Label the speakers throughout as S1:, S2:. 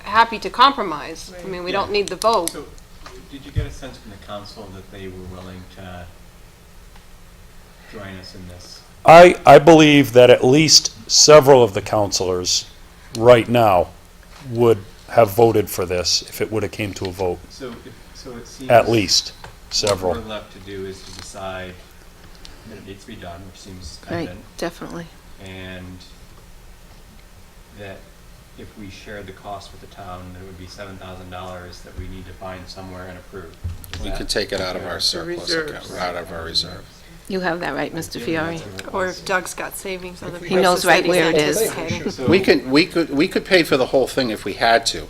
S1: happy to compromise. I mean, we don't need the vote.
S2: So, did you get a sense from the council that they were willing to join us in this?
S3: I, I believe that at least several of the counselors right now would have voted for this if it would have came to a vote,
S2: So, if- so it seems.
S3: at least
S2: What
S3: several.
S2: we're left to do is to decide that it needs to be done, which seems
S4: Right,
S2: evident,
S4: definitely.
S2: and that if we shared the cost with the town, that it would be seven thousand dollars that we need to find somewhere and approve. Is
S5: We
S2: that-
S5: could take it out of our surplus account,
S6: reserves.
S5: out of our reserve.
S4: You have that right, Mr. Fiore.
S1: Or if Doug's got savings on the
S4: He knows
S1: prices
S4: right
S1: that he's
S4: where it is.
S1: anticipating.
S2: So-
S5: We can, we could, we could pay for the whole thing if we had to.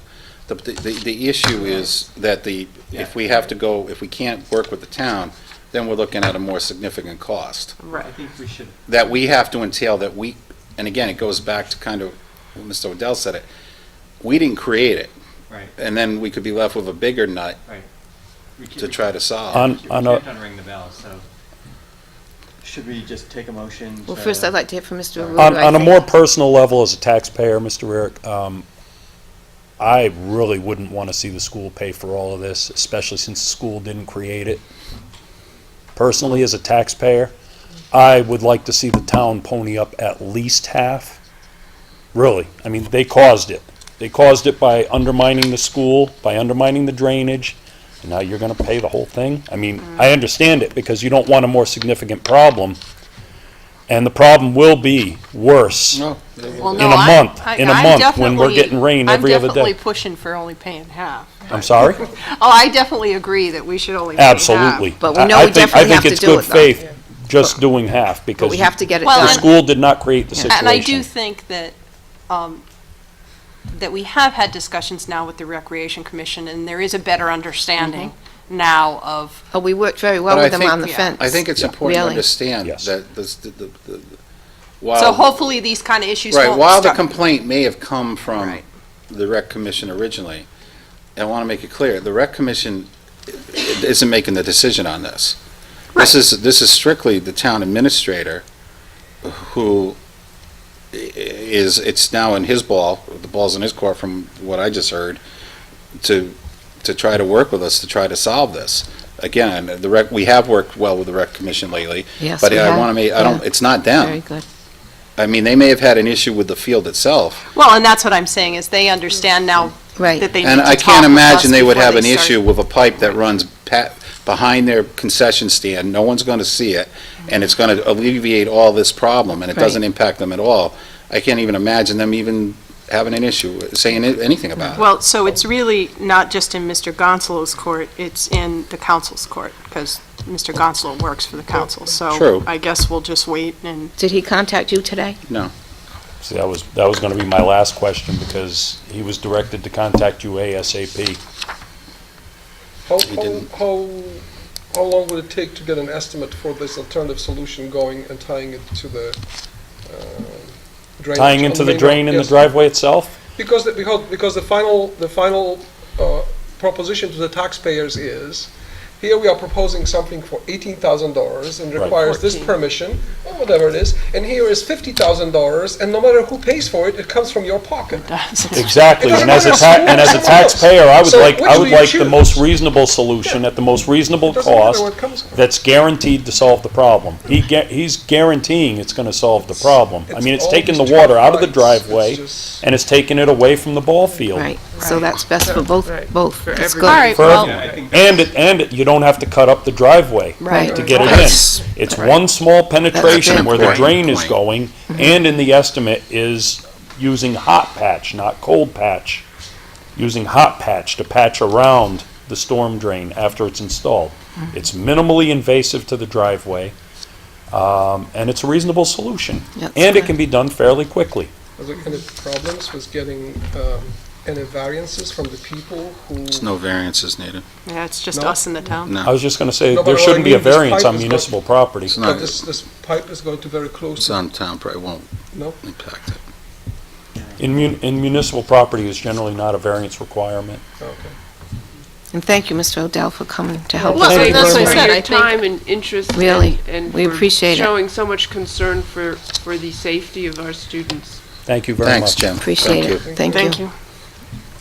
S5: The, the, the issue is that the, if we have to go, if we can't work with the town, then we're looking at a more significant cost.
S2: I think we should
S5: That we have to entail that we, and again, it goes back to kind of, what Mr. Odell said it, we didn't create it,
S2: Right,
S5: and then we could be left with a bigger nut
S2: right. We keep-
S5: to try to solve.
S2: We
S3: On-
S2: keep-
S3: on
S2: we
S3: a-
S2: kept on ringing the bell, so should we just take a motion?
S4: Well,
S2: to-
S4: first, I'd like to hear from Mr. Arudo.
S3: On,
S4: I
S3: on a
S4: think.
S3: more personal level, as a taxpayer, Mr. Eric, um, I really wouldn't want to see the school pay for all of this, especially since the school didn't create it. Personally, as a taxpayer, I would like to see the town pony up at least half. Really, I mean, they caused it. They caused it by undermining the school, by undermining the drainage, and now you're gonna pay the whole thing? I mean, I understand it, because you don't want a more significant problem, and the problem will be worse.
S5: No,
S1: Well,
S3: in
S1: no,
S3: a
S1: I-
S3: month,
S1: I-
S3: in a
S1: I'm
S3: month, when we're
S1: definitely-
S3: getting rain every other day.
S1: I'm definitely pushing for only paying half.
S3: I'm sorry?
S1: Oh, I definitely agree that we should only pay half.
S3: Absolutely.
S4: But we
S3: I-
S4: know
S3: I
S4: we
S3: think-
S4: definitely have to do
S3: I
S4: it,
S3: think
S4: though.
S3: it's good faith, just doing half,
S4: But
S3: because
S4: we have to get it
S1: Well,
S3: the
S1: and-
S4: done.
S3: school did not create the situation.
S1: And I do think that, um, that we have had discussions now with the Recreation Commission, and there is a better understanding now of,
S4: Oh, we worked very well
S5: But I
S4: with them
S5: think-
S4: on the
S1: Yeah.
S4: fence.
S5: I think it's important to
S4: Really.
S5: understand
S3: Yes.
S5: that this, the, the, the-
S1: so
S5: while
S1: hopefully these kind of issues
S5: Right,
S1: won't
S5: while the
S1: start-
S5: complaint may have come from
S1: Right.
S5: the rec commission originally, I want to make it clear, the rec commission i- isn't making the decision on this. This is, this is strictly the town administrator who i- is, it's now in his ball, the ball's in his court from what I just heard, to, to try to work with us, to try to solve this. Again, the rec, we have worked well with the rec commission lately,
S4: Yes,
S5: but
S4: we
S5: I
S4: have.
S5: want to make, I don't,
S4: Yeah.
S5: it's not
S4: Very
S5: them.
S4: good.
S5: I mean, they may have had an issue with the field itself,
S1: Well, and that's what I'm saying, is they understand now that
S4: Right.
S1: they need to
S5: And I
S1: talk
S5: can't
S1: with
S5: imagine
S1: us
S5: they would
S1: before
S5: have an
S1: start-
S5: issue with a pipe that runs pa- behind their concession stand, no one's gonna see it, and it's gonna alleviate all this problem, and it
S4: Right.
S5: doesn't impact them at all. I can't even imagine them even having an issue, saying it- anything about it.
S1: Well, so it's really not just in Mr. Gonzalo's court, it's in the council's court, because Mr. Gonzalo works for the council, so.
S5: True.
S1: I guess we'll just wait and,
S4: Did he contact you today?
S3: See, that was, that was gonna be my last question, because he was directed to contact you ASAP.
S6: How,
S5: We
S6: how,
S5: didn't.
S6: how, how long would it take to get an estimate for this alternative solution going and tying it to the uh, drain?
S3: Tying into the drain in the driveway itself?
S6: Because, the- because, because the final, the final uh, proposition to the taxpayers is, here we are proposing something for eighteen thousand dollars and
S3: Right.
S6: requires this permission, or whatever it is, and here is fifty thousand dollars, and no matter who pays for it, it comes from your pocket.
S3: Exactly, and as a ta, and as a taxpayer, I would
S6: So
S3: like,
S6: which
S3: I
S6: do
S3: would
S6: you
S3: like the
S6: choose?
S3: most reasonable solution at the most reasonable
S6: It doesn't matter
S3: cost
S6: where it comes from.
S3: that's guaranteed to solve the problem. He gu he's guaranteeing it's gonna solve the problem. I mean, it's
S6: all
S3: taking the
S6: these
S3: water out
S6: traffic
S3: of the
S6: lights. It's
S3: driveway,
S6: just-
S3: and it's taking it away from the ball field.
S4: Right. So that's best for both,
S6: Right.
S4: both. That's
S1: all
S4: good.
S1: right, well,
S2: Yeah, I think
S3: And, it- and it- you don't have to cut up the driveway
S4: Right.
S3: to get it
S5: That's-
S3: in. It's one small penetration where the
S5: important
S3: drain is
S5: point.
S3: going, and in the estimate is using hot patch, not cold patch. Using hot patch to patch around the storm drain after it's installed.
S5: Mm-hmm.
S3: It's minimally invasive to the driveway, um, and it's a reasonable solution.
S4: Yep.
S3: And it can be done fairly quickly.
S6: Are there any problems with getting um, any variances from the people who?
S5: There's no variances needed,
S1: yeah, it's just
S6: No.
S1: us in the town.
S3: I was just gonna say,
S6: No, but
S3: there
S6: what I
S3: shouldn't be a
S6: mean, this
S3: variance
S6: pipe
S3: on
S6: is not-
S3: municipal property.
S5: It's not-
S6: But this, this pipe is going to very close
S5: it's
S6: to,
S5: on town, probably won't
S6: no?
S5: impact it.
S3: In mun, in municipal property is generally not a variance requirement.
S6: Okay.
S4: And thank you, Mr. Odell, for coming to help
S3: Well,
S4: us.
S3: thank
S1: Well,
S3: you
S1: that's
S3: very
S1: what I
S3: much.
S1: said, I
S6: For your
S1: think,
S6: time and interest. and-
S4: Really,
S6: and
S4: we
S6: for
S4: appreciate it.
S6: Showing so much concern for, for the safety of our students.
S3: Thank you very much.
S5: Thanks, Jim.
S4: Appreciate
S5: Thank
S4: it.
S5: you.
S4: Thank you.
S1: thank you.